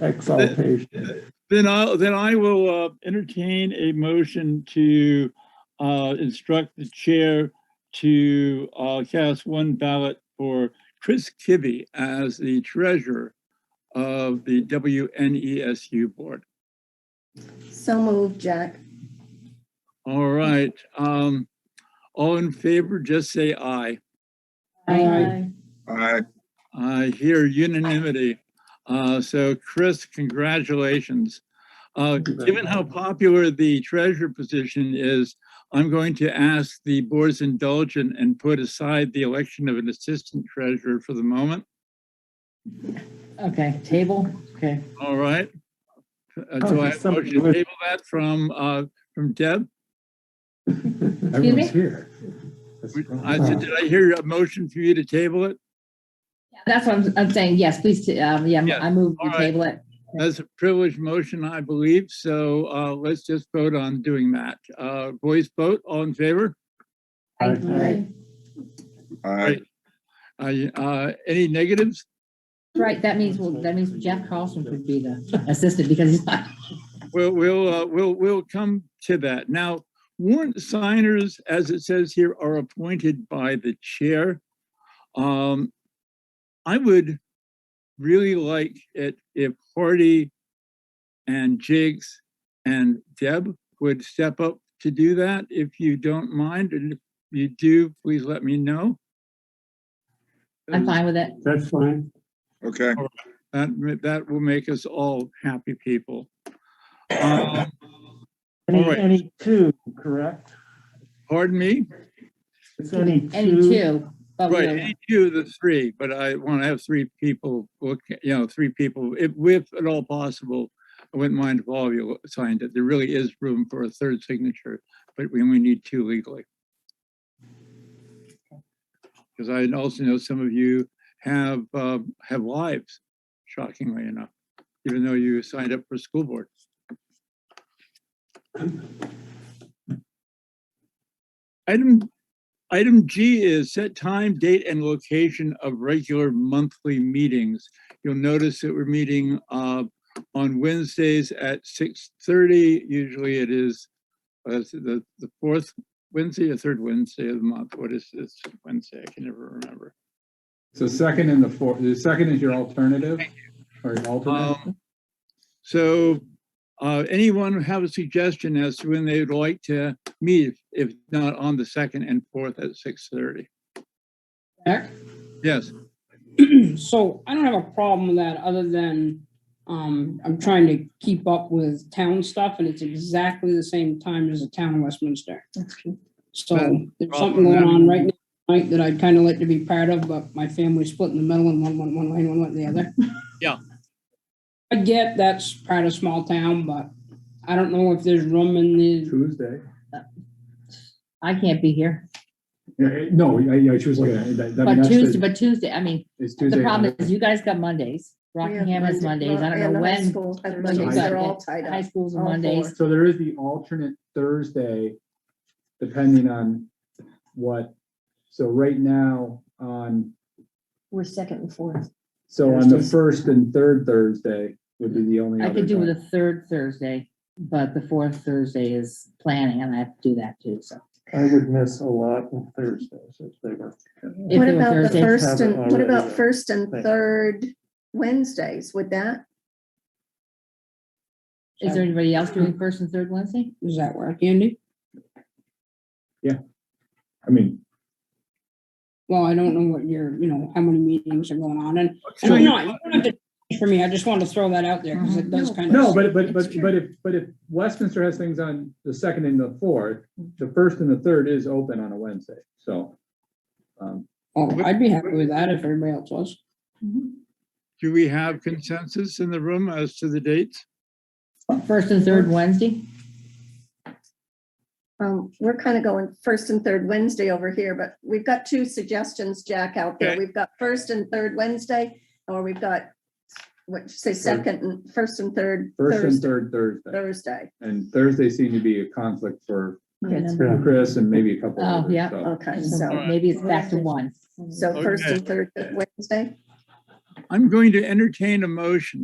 exaltation. Then I'll, then I will uh, entertain a motion to uh, instruct the chair to uh, cast one ballot for Chris Kibbe as the treasurer of the WNESU board. So moved, Jack. All right. um, All in favor, just say aye. Aye. Aye. I hear unanimity. Uh, so Chris, congratulations. Uh, Thank you very given how popular the treasurer position is, I'm going to ask the board's indulgent and put aside the election of an assistant treasurer for the moment. Okay, table, okay. All right. Uh, Oh, so I there's have a something motion to with- table that from, uh, from Deb. Everyone's here. I said, did I hear a motion for you to table it? That's what I'm, I'm saying, yes, please, t- um, yeah, Yeah, I move all to right. table it. That's a privileged motion, I believe. So, uh, let's just vote on doing that. Uh, voice vote, all in favor? Aye. Aye. I, uh, any negatives? Right, that means, well, that means Jeff Carlson could be the assistant because he's not. We'll, we'll, uh, we'll, we'll come to that. Now, warrant signers, as it says here, are appointed by the chair. Um, I would really like it if Hardy and Jigs and Deb would step up to do that, if you don't mind. And if you do, please let me know. I'm fine with it. That's fine. Okay. That, ma- that will make us all happy people. Um, Any, Alright. any two, correct? Pardon me? It's any two. Any two, but Right, we'll, any two of the three, but I want to have three people, look, you know, three people, if, if at all possible. I wouldn't mind if all of you signed it. There really is room for a third signature, but we only need two legally. Because I also know some of you have, uh, have lives, shockingly enough, even though you signed up for school board. Item Item G is set time, date, and location of regular monthly meetings. You'll notice that we're meeting uh, on Wednesdays at 6:30. Usually it is uh, is it the the fourth Wednesday or third Wednesday of the month. What is this Wednesday? I can never remember. So second and the fourth, the second is your alternative or your alternate? Um, So uh, anyone have a suggestion as to when they'd like to meet, if not on the second and fourth at 6:30? Eric? Yes, So I don't have a problem with that other than um, I'm trying to keep up with town stuff and it's exactly the same time as the town of Westminster. So Then- there's something going on right now right, that I'd kind of like to be part of, but my family's split in the middle and one went one way and one went the other. Yeah. I get that's part of small town, but I don't know if there's room in the, Tuesday? I can't be here. Yeah, eh, No, I, I- she was looking at, it. that, that- I But mean, that's Tuesday, the, but Tuesday, I mean, it's the Tuesday. problem is you guys got Mondays. We have Rockingham has Monday- Mondays. I don't and know the high when. schools have Mondays Mondays. got They're it. all tied High up. schools all and Mondays. four. So there is the alternate Thursday, depending on what, so right now on, We're second and fourth. so on the first and third Thursday would be the only I other. could do time. with a third Thursday, but the fourth Thursday is planning and I have to do that too, so. I would miss a lot on Thursdays if they were. If What it were about the Thursday- first and, what Already about there. first and Thank you. third Wednesdays? Would that? Is there anybody else doing first and third Wednesday? does that work, Andy? I mean, Well, I don't know what your, you know, how many meetings are going on and And So I'm you- not, you don't have to change for me, I just wanted to throw that out there, because it does kind of. no, but, but, It's but, true. but if, but if Westminster has things on the second and the fourth, the first and the third is open on a Wednesday, so. um, Oh, I'd be happy with that if everybody else was. do we have consensus in the room as to the dates? First and third Wednesday? Um, we're kind of going first and third Wednesday over here, but we've got two suggestions, Jack, out there. Okay. We've got first and third Wednesday, or we've got, what, you say, second and, first and third First and Thursday, third Thursday, Thursday. and Thursday seemed to be a conflict for Yes. Yeah. Chris and maybe a couple. Oh, others, yeah. so. Okay, So so, Alright. maybe it's back to one. so first Okay. and third Wednesday? I'm going to entertain a motion